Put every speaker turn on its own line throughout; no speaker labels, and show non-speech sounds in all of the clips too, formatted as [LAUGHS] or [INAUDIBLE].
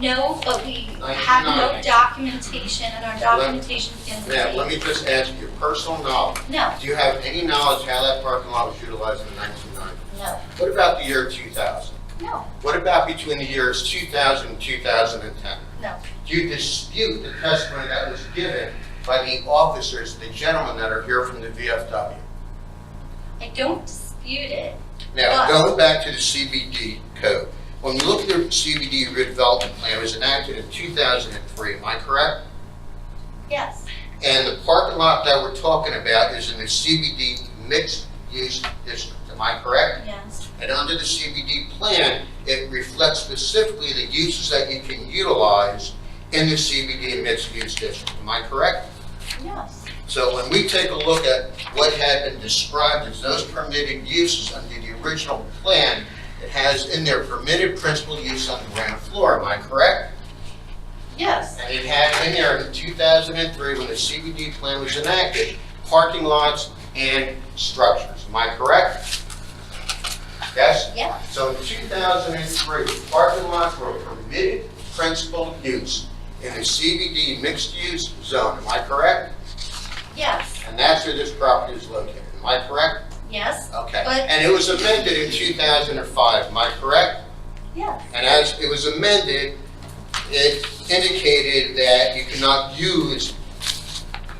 No, but we
Like,
have no
no.
documentation, and our documentation is
Now, let
complete.
me just ask you, personal knowledge,
No,
do you have any knowledge how that parking lot was utilized in 1990?
no,
What about the year 2000?
no,
What about between the years 2000 and 2010?
no.
Do you dispute the testimony that was given by the officers, the gentlemen that are here from the VFW?
I don't dispute it.
Now,
But-
going back to the CBD code, when you look at the CBD redevelopment plan, it was enacted in 2003, am I correct?
Yes,
And the parking lot that we're talking about is in the CBD mixed-use district, am I correct?
yes,
And under the CBD plan, it reflects specifically the uses that you can utilize in the CBD mixed-use district, am I correct?
yes.
So when we take a look at what had been described as those permitted uses under the original plan, it has in there permitted principal use on the ground floor, am I correct?
Yes,
And it had in there in 2003, when the CBD plan was enacted, parking lots and structures, am I correct? Yes?
yes,
So in 2003, parking lots were permitted principal use in a CBD mixed-use zone, am I correct?
yes,
And that's where this property is located, am I correct?
yes,
Okay.
But-
And it was amended in 2005, am I correct?
yes,
And as it was amended, it indicated that you cannot use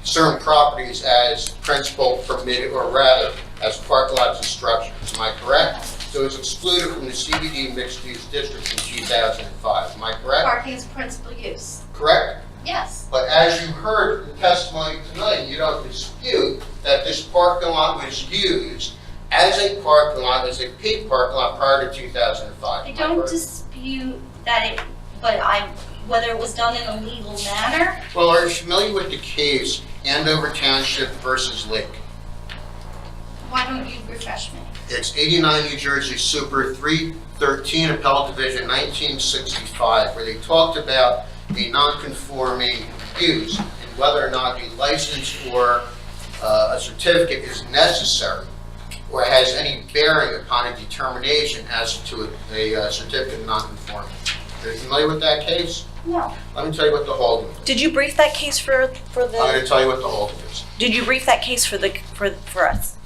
certain properties as principal permitted, or rather, as park lots and structures, am I correct? So it's excluded from the CBD mixed-use district in 2005, am I correct?
parking is principal use,
Correct?
yes,
But as you heard from testimony tonight, you don't dispute that this parking lot was used as a parking lot, as a paid parking lot prior to 2005.
I
am
don't
correct?
dispute that it, but I, whether it was done in a legal manner,
Well, are you familiar with the case Andover Township versus Lake?
why don't you refresh me?
It's 89 New Jersey Super 313 Appellate Division 1965, where they talked about the non-conforming use and whether or not a license or uh, a certificate is necessary or has any bearing upon a determination as to a uh, certificate of non-conforming. Are you familiar with that case?
No,
Let me tell you what the holding is.
Did you brief that case for, for
I'm going
the,
to tell you what the holding is.
did you brief that case for the, for, for us?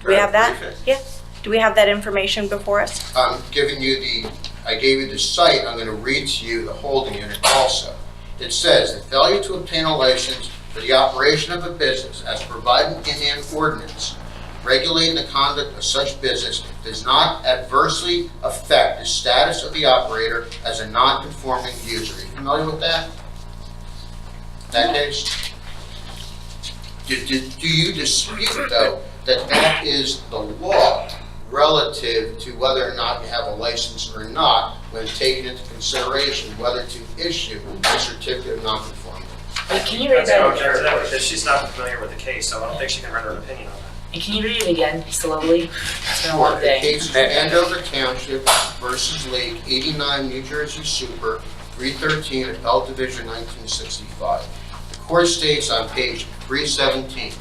Do we have that?
Perfect.
Yeah. Do we have that information before us?
I'm giving you the, I gave you the site, I'm gonna read to you the holding unit also. It says, "The failure to obtain a license for the operation of a business as provided in an ordinance regulating the conduct of such business does not adversely affect the status of the operator as a non-conforming user." Are you familiar with that? That case? Do, do, do you dispute though that that is the law relative to whether or not you have a license or not when taking into consideration whether to issue a certificate of nonconformity?
Wait, can you read
That's
that
how it
again?
turns out, because she's not familiar with the case, so I don't think she can render an opinion on that.
And can you read it again slowly? It's been a long
For the
day.
case of Andover Township versus Lake, 89 New Jersey Super, 313, Appellate Division, 1965. The court states on page 317,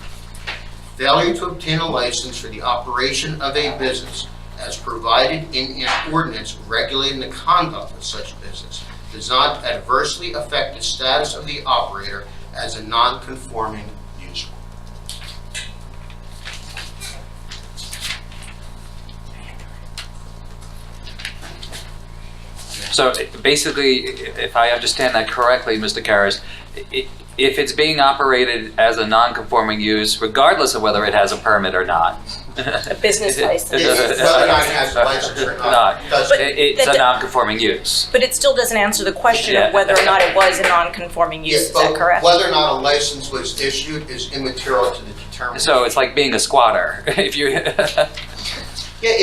"Failure to obtain a license for the operation of a business as provided in an ordinance regulating the conduct of such business does not adversely affect the status of the operator as a non-conforming user."
So basically, if I understand that correctly, Mr. Karas, i- if it's being operated as a non-conforming use, regardless of whether it has a permit or not.
A business license?
Whether or not it has a license or [LAUGHS] not, does
It- It's
But-
a non-conforming use.
But it still doesn't answer the question
Yeah.
of whether or not it was a non-conforming use,
Yes,
is that
but
correct?
Whether or not a license was issued is immaterial to the determination.
So it's like being a squatter. [LAUGHS] If you,
Yeah,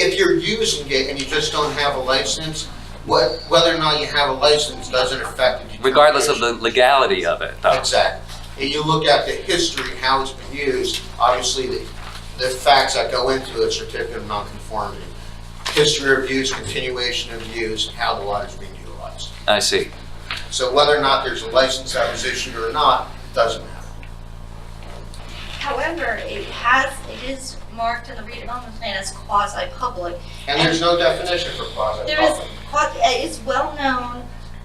if you're using it and you just don't have a license, what, whether or not you have a license doesn't affect the determination.
regardless of the oh. legality of it, though.
Exactly. And you look at the history, how it's been used, obviously the, the facts that go into a certificate of nonconformity. History of use, continuation of use, and how the lot is being utilized.
I see.
So whether or not there's a license that was issued or not, doesn't matter.
however, it has, it is marked in the redevelopment plan as quasi-public,
And there's no definition for quasi-public.
There is, qua- uh, it's well known